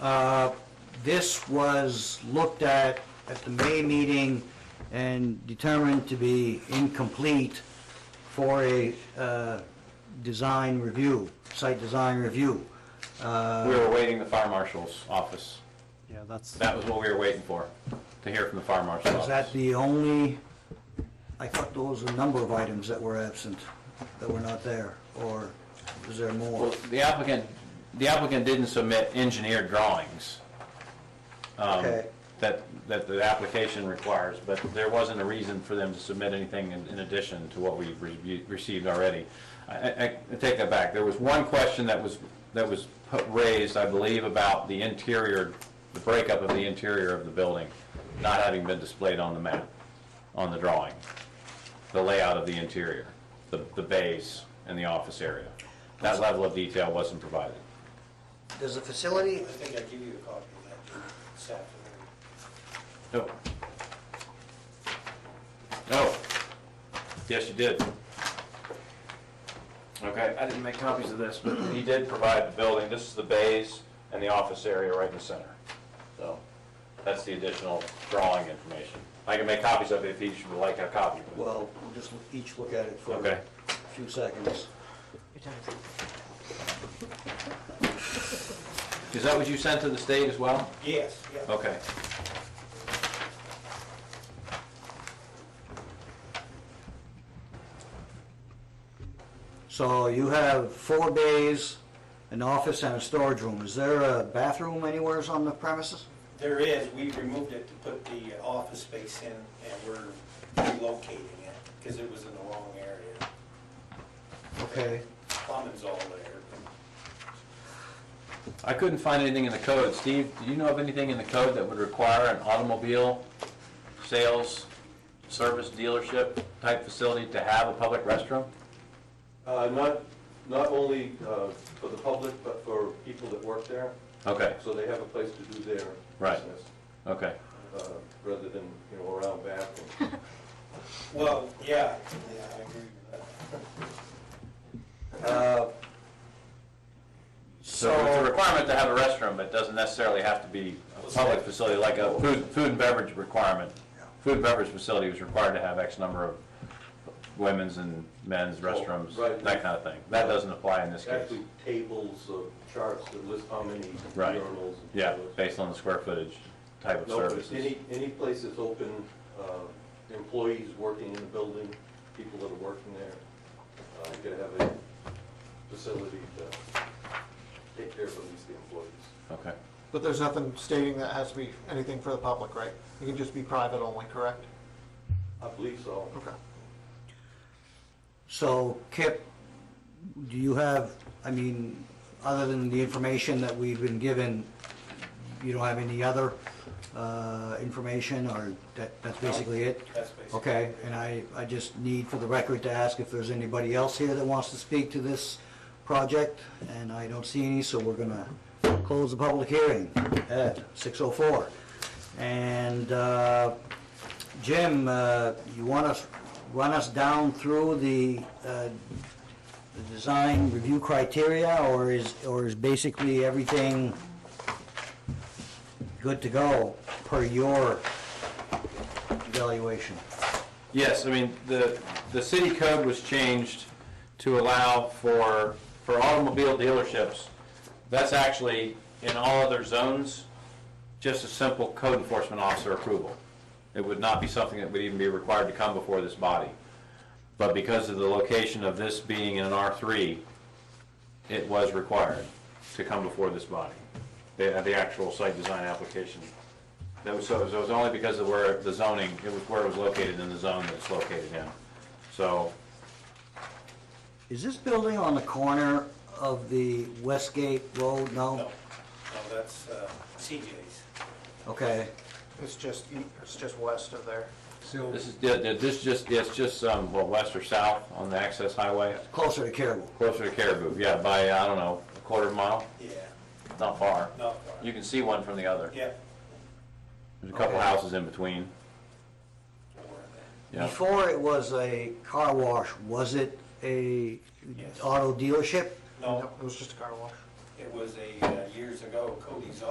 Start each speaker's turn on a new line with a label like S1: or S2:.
S1: Uh, This was looked at at the May meeting and determined to be incomplete for a uh, design review, site design review.
S2: We were awaiting the fire marshal's office.
S3: Yeah, that's,
S2: That was what we were waiting for, to hear from the fire marshal's
S1: Is that
S2: office.
S1: the only, I thought those were a number of items that were absent, that were not there, or is there more?
S2: Well, The applicant, the applicant didn't submit engineered drawings um,
S1: Okay.
S2: that, that the application requires, but there wasn't a reason for them to submit anything in in addition to what we've re- received already. I- I, I take that back. There was one question that was, that was put- raised, I believe, about the interior, the breakup of the interior of the building, not having been displayed on the map, on the drawing, the layout of the interior, the, the bays and the office area. That level of detail wasn't provided.
S1: Does the facility,
S4: I think I give you a copy of that Jim, this afternoon.
S2: No. No. Yes, you did. Okay, I didn't make copies of this, but he did provide the building. This is the bays and the office area right in the center. So that's the additional drawing information. I can make copies of it if each would like a copy.
S1: well, we'll just each look at it for
S2: Okay.
S1: a few seconds.
S2: Is that what you sent to the state as well?
S4: Yes, yeah.
S2: Okay.
S1: So you have four bays, an office and a storage room. Is there a bathroom anywhere on the premises?
S4: There is, we removed it to put the office space in and we're relocating it because it was in the wrong area.
S1: Okay,
S4: Plumbing's all there.
S2: I couldn't find anything in the code. Steve, do you know of anything in the code that would require an automobile sales, service dealership type facility to have a public restroom?
S5: Uh, Not, not only uh, for the public, but for people that work there,
S2: Okay,
S5: so they have a place to do their
S2: Right.
S5: business,
S2: okay.
S5: uh, rather than, you know, around back. and-
S4: Well, yeah, yeah, I agree with that.
S2: So it's a requirement to have a restroom, but it doesn't necessarily have to be a public facility, like a food, food and beverage requirement. Food and beverage facility was required to have X number of women's and men's restrooms,
S5: right.
S2: that kind of thing. That doesn't apply in this case.
S5: Actually, tables of charts that list how many
S2: Right.
S5: urinals. and
S2: Yeah,
S5: toilets.
S2: based on the square footage type of
S5: No, but
S2: services.
S5: any, any place that's open, uh, employees working in the building, people that are working there, uh, you gotta have a facility to take care of at least the employees.
S2: Okay.
S6: But there's nothing stating that has to be anything for the public, right? It can just be private only, correct?
S5: I believe so.
S6: Okay.
S1: so Kip, do you have, I mean, other than the information that we've been given, you don't have any other uh, information, or that, that's basically it?
S4: That's basically
S1: Okay, and I, I just need for the record to ask if there's anybody else here that wants to speak to this project, and I don't see any, so we're gonna close the public hearing at 6:04. And uh, Jim, uh, you want us, run us down through the uh, the design review criteria, or is, or is basically everything good to go per your evaluation?
S2: Yes, I mean, the, the city code was changed to allow for, for automobile dealerships. That's actually, in all other zones, just a simple code enforcement officer approval. It would not be something that would even be required to come before this body. But because of the location of this being in an R3, it was required to come before this body, the, the actual site design application. That was, so it was only because of where the zoning, it was where it was located in the zone that it's located in. So,
S1: Is this building on the corner of the Westgate Road?
S4: No,
S1: No?
S4: no, that's uh, CJ's.
S1: Okay,
S6: It's just, e- it's just west of there.
S2: this is, yeah, yeah, this just, it's just, um, what, west or south on the access highway,
S1: closer to Caribou.
S2: closer to Caribou, yeah, by, I don't know, a quarter mile,
S4: Yeah,
S2: not far.
S4: not far.
S2: You can see one from the other.
S4: Yeah.
S2: There's a couple
S1: Okay.
S2: houses in between,
S4: where that-
S2: yeah.
S1: Before it was a car wash, was it a
S4: Yes.
S1: auto dealership?
S4: No,
S6: It was just a car wash.
S4: it was a, uh, years ago, Cody's